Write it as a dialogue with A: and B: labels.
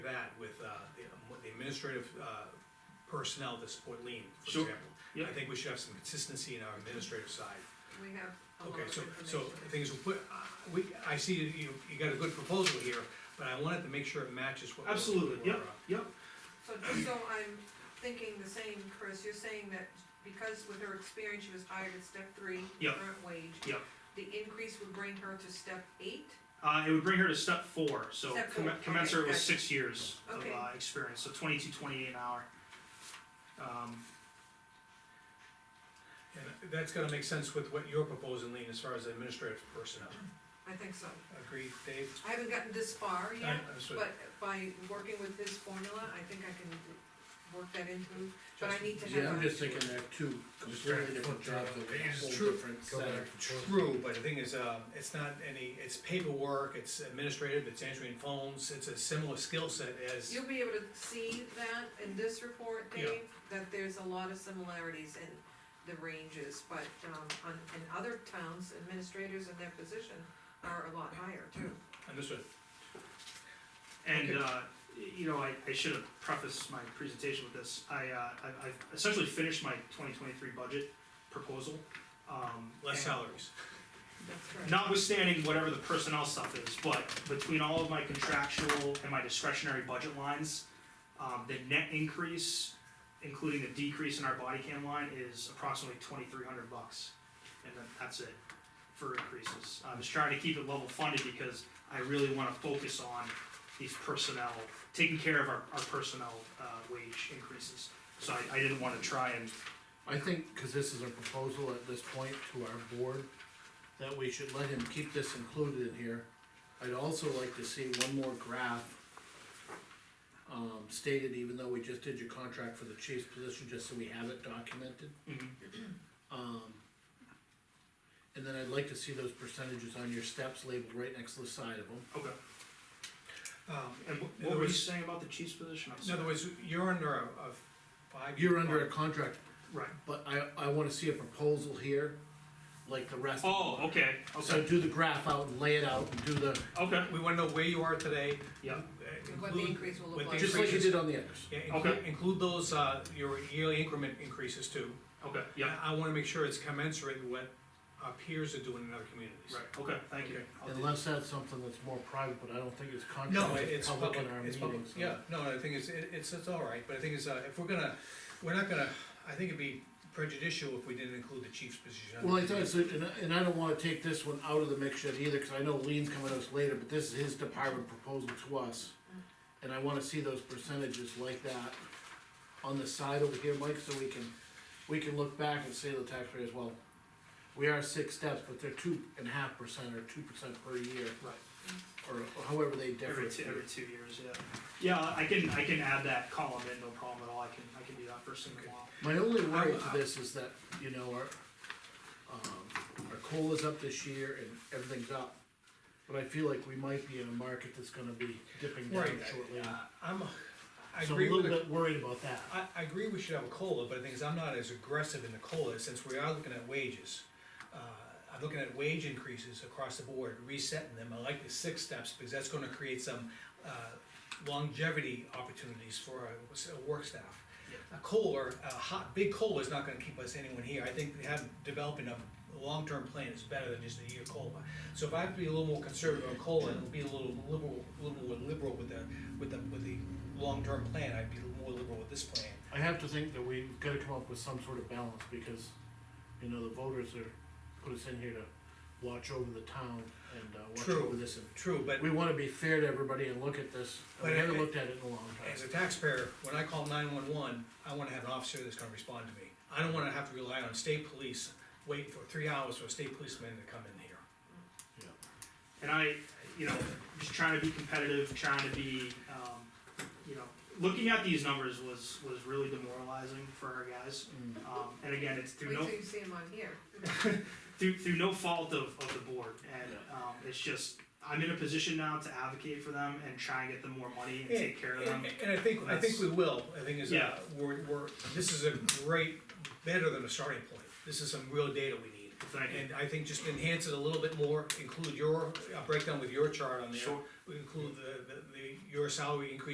A: uh, um, administrative, uh, personnel that support lean, for
B: Sure.
A: example.
B: Yep.
A: I think we should have some consistency in our administrative side.
C: we have a lot
A: Okay,
C: of
A: so,
C: information.
A: so the thing is, we put, uh, we, I see you, you you got a good proposal here, but I wanted to make sure it matches what. we're-
B: Absolutely, yep,
A: we're, uh,
B: yep,
C: So just so I'm thinking the same, Chris, you're saying that because with her experience, she was hired at step three,
B: Yep.
C: current wage.
B: Yep.
C: The increase would bring her to step eight,
B: uh, it would bring her to step four, so
C: Step
B: com-
C: four, okay,
B: commensurate with
C: gotcha.
B: six years of,
C: Okay.
B: uh, experience, so twenty-two, twenty-eight an hour. Um,
A: And that's gonna make sense with what you're proposing, lean, as far as administrative personnel.
C: I think so.
A: Agreed, Dave?
C: I haven't gotten this far yet,
A: I- I was-
C: but by working with this formula, I think I can work that into, but I need to have.
D: Yeah, I'm
C: a-
D: just thinking they're two completely different jobs, they're a whole
A: It's true.
D: different
E: Go
D: set.
E: back.
A: True, but the thing is, uh, it's not any, it's paperwork, it's administrative, it's answering phones, it's a similar skill set as,
C: You'll be able to see that in this report,
A: Yeah.
C: Dave, that there's a lot of similarities in the ranges, but, um, on, in other towns, administrators in their position are a lot higher too.
A: understood,
B: And,
A: Okay.
B: uh, y- you know, I, I should have prefaced my presentation with this, I, uh, I, I've essentially finished my twenty twenty-three budget proposal. um,
A: less
B: and-
A: salaries.
C: That's right.
B: Notwithstanding whatever the personnel stuff is, but between all of my contractual and my discretionary budget lines, um, the net increase, including the decrease in our body cam line, is approximately twenty-three hundred bucks. And then that's it for increases. I was trying to keep it level funded because I really wanna focus on these personnel, taking care of our, our personnel, uh, wage increases. So I, I didn't wanna try and,
D: I think, cause this is a proposal at this point to our board, that we should let him keep this included in here. I'd also like to see one more graph. Um, stated, even though we just did your contract for the chief's position, just so we have it documented.
B: Mhm.
D: Mm-hmm. Um. And then I'd like to see those percentages on your steps labeled right next to the side of them.
B: okay.
A: Um,
B: And wh-
A: In
B: what
A: other
B: were you
A: words-
B: saying about the chief's position? I'm
A: in other
B: sorry.
A: words, you're under a, a five.
D: You're under a contract
B: Right.
D: But I, I wanna see a proposal here, like the rest. of
B: Oh, okay,
D: them. So
B: okay,
D: do the graph out and lay it out and do the,
B: okay,
A: We wanna know where you are today.
B: Yeah.
A: uh,
C: And what the
A: include-
C: increase will
A: what
C: look
A: the
C: like.
D: just like you
A: increases-
D: did on the others.
A: Yeah,
B: Okay.
A: include, include those, uh, your yearly increment increases too.
B: okay, yeah,
A: I I wanna make sure it's commensurate with what our peers are doing in other communities.
B: right, okay, thank you.
A: Okay.
B: I'll do
D: Unless that's something that's more private, but I don't think it's
A: No,
D: contract,
A: it-
D: it's
A: it's
D: public
A: public,
D: in our
A: it's public,
D: meetings. so-
A: yeah, no, I think it's, it- it's, it's all right, but I think it's, uh, if we're gonna, we're not gonna, I think it'd be prejudicial if we didn't include the chief's position.
D: Well, I thought, it's- and, I- and I don't wanna take this one out of the mix yet either, cause I know Lean's coming to us later, but this is his department proposal to us. And I wanna see those percentages like that on the side over here, Mike, so we can, we can look back and say to the taxpayers, well, we are six steps, but they're two and a half percent or two percent per year,
B: Right,
D: or however they differ.
B: every two, every two years, yeah. Yeah, I can, I can add that column in, no problem at all, I can, I can do that first thing in a while.
D: My only worry
A: I-
D: to this is that, you know, our, um, our coal is up this year and everything's up. But I feel like we might be in a market that's gonna be dipping down
A: Right,
D: shortly.
A: I- I'm, I
D: So I'm
A: agree
D: a
A: with,
D: little
A: the-
D: bit worried about that.
A: I, I agree we should have a COLA, but the thing is, I'm not as aggressive in the COLA, since we are looking at wages. Uh, I'm looking at wage increases across the board, resetting them, I like the six steps, because that's gonna create some, uh, longevity opportunities for our, our work staff. a COLA, a hot, big COLA is not gonna keep us anyone here, I think have, developing a long-term plan is better than just a year COLA. So if I have to be a little more conservative on COLA, and be a little liberal, a little more liberal with the, with the, with the long-term plan, I'd be more liberal with this plan.
D: I have to think that we've gotta come up with some sort of balance because, you know, the voters are, put us in here to watch over the town and, uh, watch
A: True.
D: over this. and
A: True, but
D: We wanna be fair to everybody and look at this. and
A: But
D: We
A: I-
D: haven't looked at it in a long
A: as
D: time.
A: a taxpayer, when I call nine-one-one, I wanna have an officer that's gonna respond to me. I don't wanna have to rely on state police, wait for three hours for a state policeman to come in here.
D: Yeah.
B: And I, you know, just trying to be competitive, trying to be, um, you know, looking at these numbers was, was really demoralizing for our guys.
D: Mm.
B: Um, and again, it's through
C: Wait
B: no,
C: till you see them on here.
B: through, through no fault of, of the board, and, um, it's just, I'm in a position now to advocate for them and try and get them more money and take care of them.
A: And- And I think, I think we will, I think is, uh,
B: Yeah.
A: we're, we're, this is a great, better than a starting point, this is some real data we need.
B: Thank you.
A: And I think just enhance it a little bit more, include your, uh breakdown with your chart on there.
B: Sure.
A: Include the, the, the, your salary increase